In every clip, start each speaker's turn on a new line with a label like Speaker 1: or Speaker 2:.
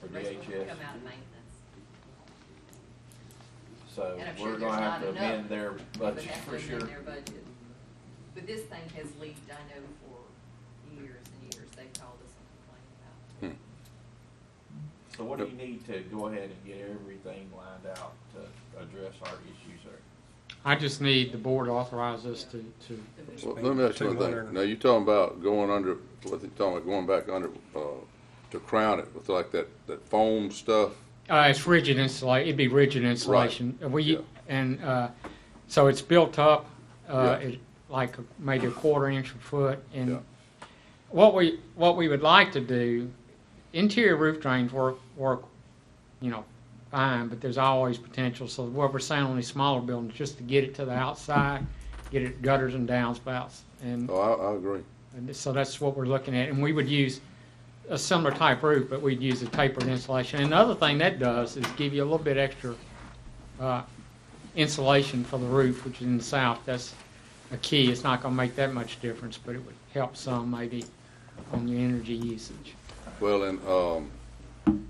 Speaker 1: for
Speaker 2: The rest will Come out
Speaker 1: DHS.
Speaker 2: of maintenance.
Speaker 1: So
Speaker 2: And I'm sure
Speaker 1: we're gonna
Speaker 2: there's
Speaker 1: have
Speaker 2: not
Speaker 1: to
Speaker 2: enough,
Speaker 1: amend their
Speaker 2: But
Speaker 1: budget
Speaker 2: that's
Speaker 1: for
Speaker 2: what's in
Speaker 1: sure.
Speaker 2: Their budget. But this thing has leaked, I know, for years and years. They've called us and complained about it.
Speaker 3: Hmm.
Speaker 1: So what do you need to go ahead and get everything lined out to address our issues there?
Speaker 4: I just need the board to authorize us to, to,
Speaker 2: The-
Speaker 3: Well, let me ask you one thing. Now, you talking about going under, what you talking about, going back under, uh, to crown it with like that, that foam stuff?
Speaker 4: uh, it's rigid insulation, it'd be rigid insulation. And
Speaker 3: yeah.
Speaker 4: We, and, uh, so it's built up, uh,
Speaker 3: Yeah.
Speaker 4: it- like a- maybe a quarter inch a foot.
Speaker 3: Yeah.
Speaker 4: And what we, what we would like to do, interior roof drains work, work, you know, fine, but there's always potential. So what we're saying on these smaller buildings, just to get it to the outside, get it gutters and downspouts. And
Speaker 3: Oh, I, I agree.
Speaker 4: And so that's what we're looking at, and we would use a similar type roof, but we'd use a tapered insulation. And the other thing that does is give you a little bit extra uh, insulation for the roof, which is in the south, that's a key. It's not gonna make that much difference, but it would help some maybe on your energy usage.
Speaker 3: Well, and, um,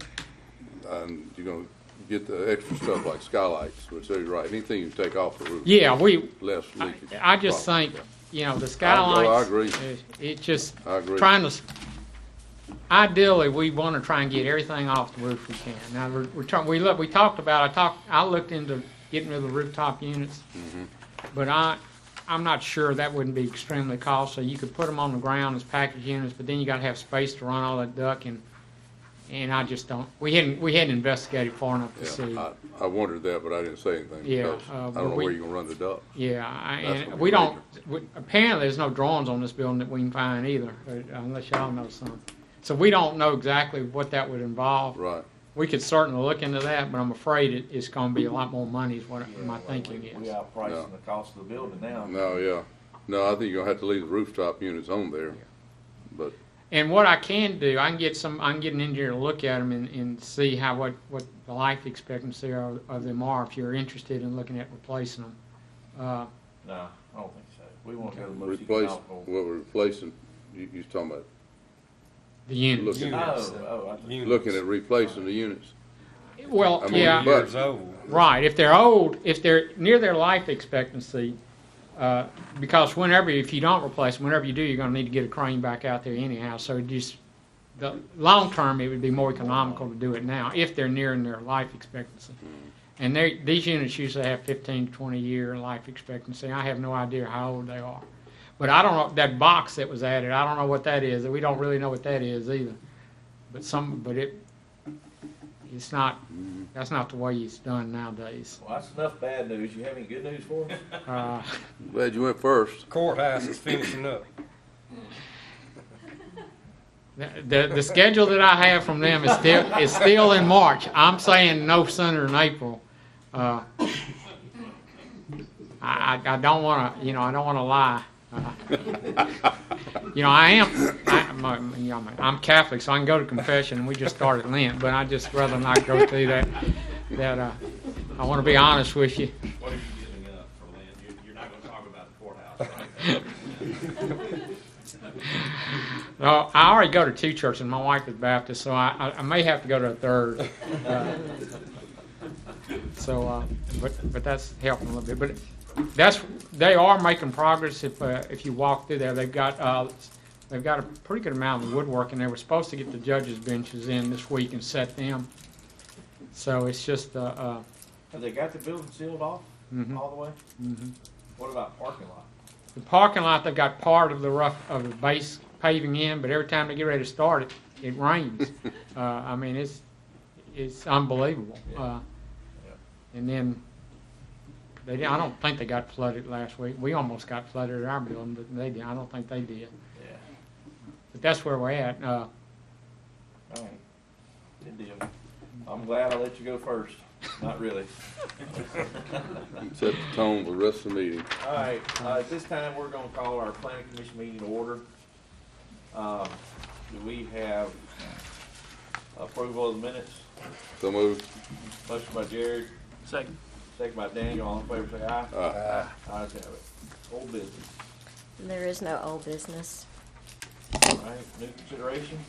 Speaker 3: and you're gonna get the extra stuff like skylights, which they're right, anything you take off the roof.
Speaker 4: Yeah, we,
Speaker 3: Less
Speaker 4: I-
Speaker 3: leakage.
Speaker 4: I just
Speaker 3: Right.
Speaker 4: think, you know, the
Speaker 3: I-
Speaker 4: skylights.
Speaker 3: no, I agree.
Speaker 4: it- It just,
Speaker 3: I agree.
Speaker 4: trying to, s- ideally, we want to try and get everything off the roof we can. Now, we're, we're trying, we look, we talked about, I talked, I looked into getting rid of the rooftop units.
Speaker 3: Mm-hmm.
Speaker 4: But I, I'm not sure that wouldn't be extremely costly. You could put them on the ground as package units, but then you gotta have space to run all that duck and, and I just don't, we hadn't, we hadn't investigated far enough to see.
Speaker 3: Yeah, I, I wondered that, but I didn't say anything
Speaker 4: Yeah,
Speaker 3: because
Speaker 4: uh,
Speaker 3: I don't know
Speaker 4: we-
Speaker 3: where you're gonna run the duct.
Speaker 4: Yeah, I-
Speaker 3: That's
Speaker 4: and
Speaker 3: what
Speaker 4: we
Speaker 3: we
Speaker 4: don't, we- apparently, there's no drawings on this building that we can find either, uh, unless y'all know some. So we don't know exactly what that would involve.
Speaker 3: Right.
Speaker 4: We could certainly look into that, but I'm afraid it, it's gonna be a lot more money is what
Speaker 1: Yeah,
Speaker 4: my
Speaker 1: well,
Speaker 4: thinking
Speaker 1: we- We
Speaker 4: is.
Speaker 1: are
Speaker 3: No.
Speaker 1: pricing the cost of the building now.
Speaker 3: No, yeah. No, I think you're gonna have to leave the rooftop units on there. But,
Speaker 4: And what I can do, I can get some, I can get an engineer to look at them and, and see how, what, what the life expectancy of, of them are, if you're interested in looking at replacing them. Uh,
Speaker 1: No, I don't think so. We want to go to the most
Speaker 3: Replace, what
Speaker 1: economical.
Speaker 3: we're replacing, you, you was talking about
Speaker 4: the units.
Speaker 3: Look
Speaker 1: Oh,
Speaker 3: at-
Speaker 1: oh, I think,
Speaker 3: looking at replacing the units.
Speaker 4: Well,
Speaker 3: I mean,
Speaker 4: yeah.
Speaker 3: but-
Speaker 5: years old.
Speaker 4: Right. If they're old, if they're near their life expectancy, uh, because whenever, if you don't replace them, whenever you do, you're going to need to get a crane back out there anyhow. So just the long term, it would be more economical to do it now if they're nearing their life expectancy. And they, these units usually have 15 to 20 year life expectancy. I have no idea how old they are. But I don't know, that box that was added, I don't know what that is. We don't really know what that is either. But some, but it, it's not, that's not the way it's done nowadays.
Speaker 1: well, that's enough bad news. You have any good news for us?
Speaker 4: Uh,
Speaker 3: Glad you went first.
Speaker 5: Courthouse is finishing up.
Speaker 4: The, the the schedule that I have from them is still, is still in March. I'm saying no sooner than April. Uh, I, I I don't want to, you know, I don't want to lie. Uh, You know, I am, I- my- my- you know, my- I'm Catholic, so I can go to confession, and we just started Lent, but I'd just rather not go through that, that, uh, I want to be honest with you.
Speaker 6: What are you giving up for land? You're, you're not gonna talk about the courthouse,
Speaker 4: No, Uh, I already go to two churches, my wife is Baptist, so I, I- I may have to go to a third. Uh, So, uh, but, but that's helping a little bit, but that's, they are making progress if, uh, if you walk through there, they've got, uh, they've got a pretty good amount of woodwork, and they were supposed to get the judges' benches in this week and set them. So it's just, uh, uh,
Speaker 1: Have they got the building sealed off
Speaker 4: mhm.
Speaker 1: all the way?
Speaker 4: Mhm.
Speaker 1: What about parking lot?
Speaker 4: The parking lot, they've got part of the rough, of the base paving in, but every time they get ready to start it, it rains. Uh, I mean, it's, it's unbelievable. Uh, And then, they, didn't- I don't think they got flooded last week. We almost got flooded at our building, but they, didn't. I don't think they did.
Speaker 1: Yeah.
Speaker 4: But that's where we're at. Uh,
Speaker 1: All right. Good deal. I'm glad I let you go first. Not really.
Speaker 3: Set the tone for the rest of the meeting.
Speaker 1: All right, uh, at this time, we're gonna call our planning commission meeting to order. Um, do we have approval of the minutes?
Speaker 3: So moved.
Speaker 1: Motion by Jared. Second. Second by Daniel, all in favor, say aye.
Speaker 3: Aye.
Speaker 1: Ayes have it. Old business,
Speaker 7: There is no old business.
Speaker 1: all right, new consideration?